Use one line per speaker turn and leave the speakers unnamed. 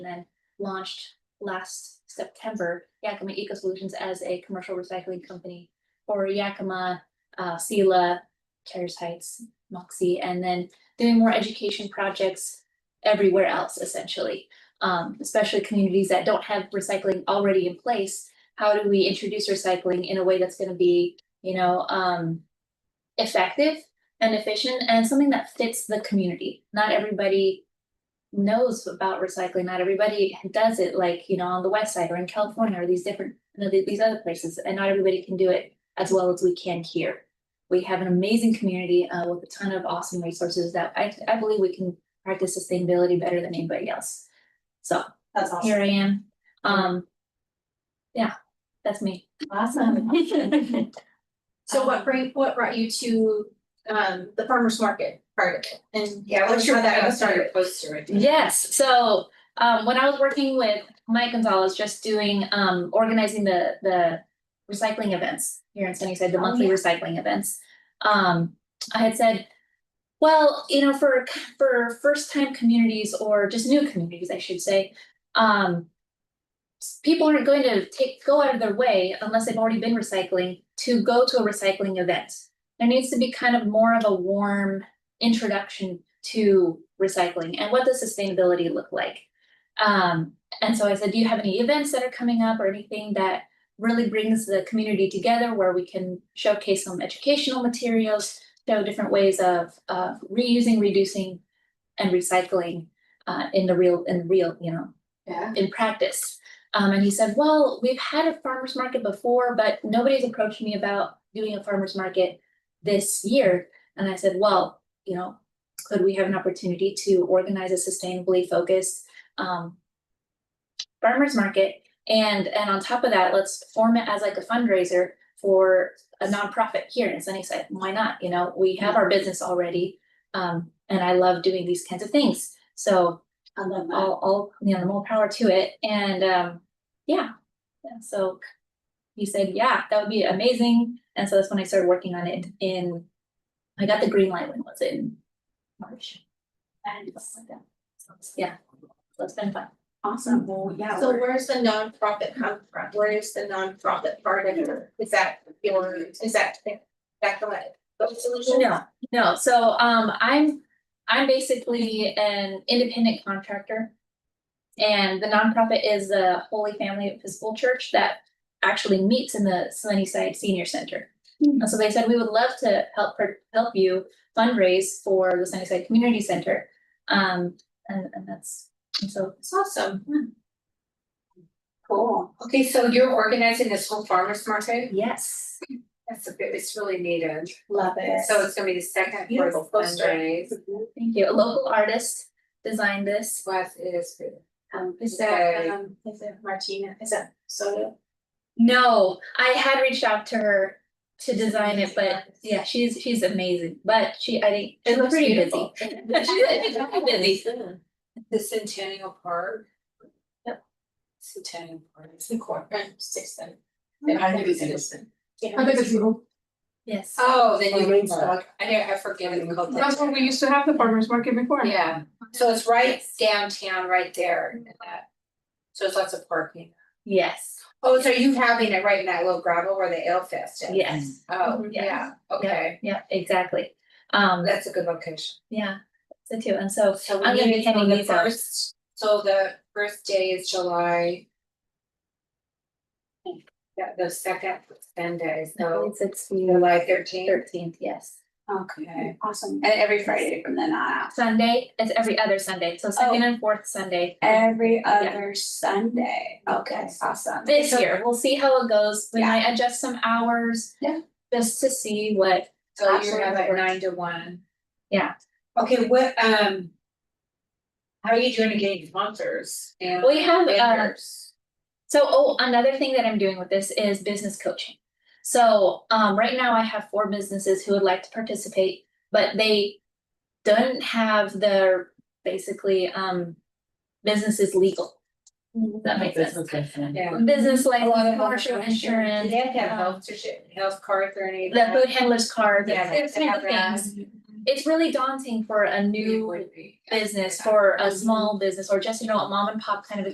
and then launched last September Yakima Eco Solutions as a commercial recycling company for Yakima, uh, Sela, Terrace Heights, Moxie, and then doing more education projects everywhere else essentially. Um, especially communities that don't have recycling already in place. How do we introduce recycling in a way that's gonna be, you know, um, effective and efficient and something that fits the community? Not everybody knows about recycling. Not everybody does it like, you know, on the west side or in California or these different, you know, th- these other places, and not everybody can do it as well as we can here. We have an amazing community uh, with a ton of awesome resources that I, I believe we can practice sustainability better than anybody else. So
That's
here I am. Um, yeah, that's me. Um,
Awesome. So what bring, what brought you to um the farmer's market part of it and?
Yeah, what's your,
how that
I
got
was starting
started?
to post to it.
Yes, so um when I was working with Mike Gonzalez, just doing um organizing the the recycling events here in Sunnyside, the
Oh,
monthly
yeah.
recycling events. Um I had said, well, you know, for for first time communities or just new communities, I should say, um s- people aren't going to take go out of their way unless they've already been recycling to go to a recycling event. There needs to be kind of more of a warm introduction to recycling and what does sustainability look like? Um, and so I said, do you have any events that are coming up or anything that really brings the community together where we can showcase some educational materials, show different ways of of reusing, reducing, and recycling uh, in the real in real you know
Yeah.
in practice. Um, and he said, well, we've had a farmer's market before, but nobody's approached me about doing a farmer's market this year. And I said, well, you know, could we have an opportunity to organize a sustainably focused, um, farmer's market? And, and on top of that, let's form it as like a fundraiser for a nonprofit here in Sunnyside. Why not? You know, we have our business already. Um, and I love doing these kinds of things. So
I love that.
all, all, you know, more power to it, and, um, yeah, yeah, so. He said, yeah, that would be amazing, and so that's when I started working on it in, I got the green light when was it in March? And something like that. So it's- Yeah, so it's been fun.
Awesome.
yeah.
So where's the nonprofit come from? Where is the nonprofit part of it? Is that your, is that that the way? the solution?
No, no, so, um, I'm, I'm basically an independent contractor. And the nonprofit is the Holy Family Episcopal Church that actually meets in the Sunnyside Senior Center. And so they said, we would love to help, per- help you fundraise for the Sunnyside Community Center. Um, and, and that's, and so,
It's awesome.
Cool. Okay, so you're organizing this whole farmer's market?
yes,
That's a bit, it's really needed.
Love
So it's gonna be the second
Beautiful
Portable
poster.
fundraise.
thank you. A local artist designed this.
What is it?
Um is
Okay.
that um is it Martina? Is that Soto?
No, I had reached out to her to design it, but yeah, she's, she's amazing, but she, I think,
It
she's
looks
pretty busy.
beautiful.
She's pretty busy.
The Centennial Park.
Yep.
Centennial Park.
It's in court, right? Six then.
I think it's
interesting.
I think it's Eagle.
Yes,
Oh, the
Oh,
new
Rain
park. I know, I forget what it's called.
That's where we used to have the farmer's market before.
Yeah, so it's right downtown, right there in that. So it's lots of parking.
yes,
Oh, so you having it right in that little gravel where the ale fest is?
yes,
Oh,
Mhm.
yeah, okay.
yeah, exactly. Um,
That's a good location.
yeah, so too, and so
So
I'm
we
gonna be
need to
handing
go the
these out.
first, so the first day is July. Yeah, the second Sunday, so
it's, it's the
July thirteenth.
thirteenth, yes.
Okay.
Awesome.
And every Friday from then on out,
Sunday, it's every other Sunday, so second and fourth Sunday.
every other Sunday, okay, awesome.
This year, we'll see how it goes, we
Yeah.
might adjust some hours.
Yeah.
Just to see what,
So you
Absolutely.
have like nine to one.
Yeah.
Okay, what, um. How are you doing to getting sponsors and
We have, uh,
vendors?
so, oh, another thing that I'm doing with this is business coaching. So, um, right now I have four businesses who would like to participate, but they don't have their, basically, um, businesses legal. Does That makes sense.
Yeah.
Business like
Mm-hmm. A lot of
commercial
them-
insurance.
Do they have to have
um,
health, certi- health cards or anything?
the food handler's card,
Yeah,
those
they
kinds
have
of
that.
things. it's really daunting for a
It
new
would be.
business, for a small business, or just, you know, a mom and pop kind of a